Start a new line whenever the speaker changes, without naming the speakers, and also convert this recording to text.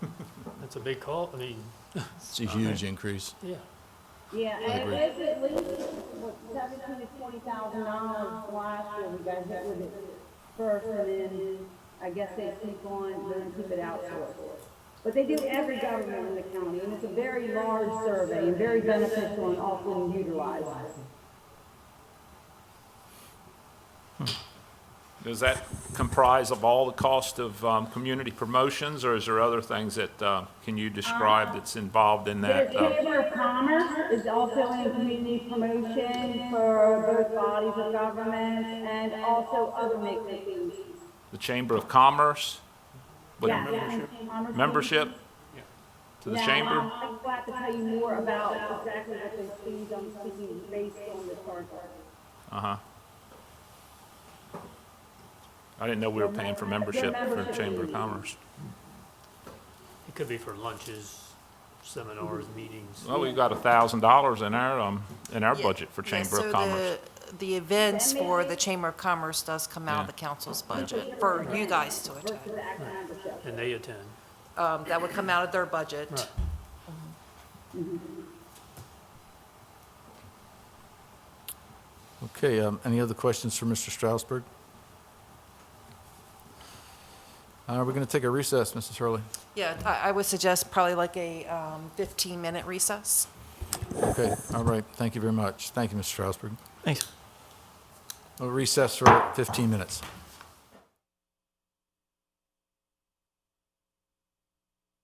It's a big call, I mean,
It's a huge increase.
yeah.
Yeah, and
agree.
it's at least, what, seventeen to twenty thousand dollars last year, we got hit with it first, and then I guess they keep on, they're gonna keep it outsourced. But they do every government in the county, and it's a very large survey, and very beneficial and often utilized.
Does that comprise of all the cost of um, community promotions, or is there other things that, uh, can you describe that's involved in
Their
that? Uh,
Chamber of Commerce is also in community promotion for both bodies of government and also other make-a-fees.
The Chamber of Commerce? With
Commerce-
Membership to the
Now,
chamber?
I'm- I'm glad to tell you more about exactly what those fees I'm speaking based on the charter.
Uh-huh. I didn't know we were paying for membership for the Chamber of Commerce.
It could be for lunches, seminars, meetings.
Well, we've got a thousand dollars in our, um, in our
Yeah.
budget for
Yeah,
Chamber
so
of Commerce.
the- The events for the Chamber of Commerce does come out of
Yeah.
the council's budget for you guys to attend.
The actual membership.
And they attend.
Um, That would come out of their budget.
Right.
Okay, um, any other questions for Mr. Strasburg? Uh, we're gonna take a recess, Mrs. Hurley.
Yeah, I I would suggest probably like a 15-minute recess.
Okay, all right, thank you very much. Thank you, Mr. Strasburg.
Thanks.
We'll recess for 15 minutes.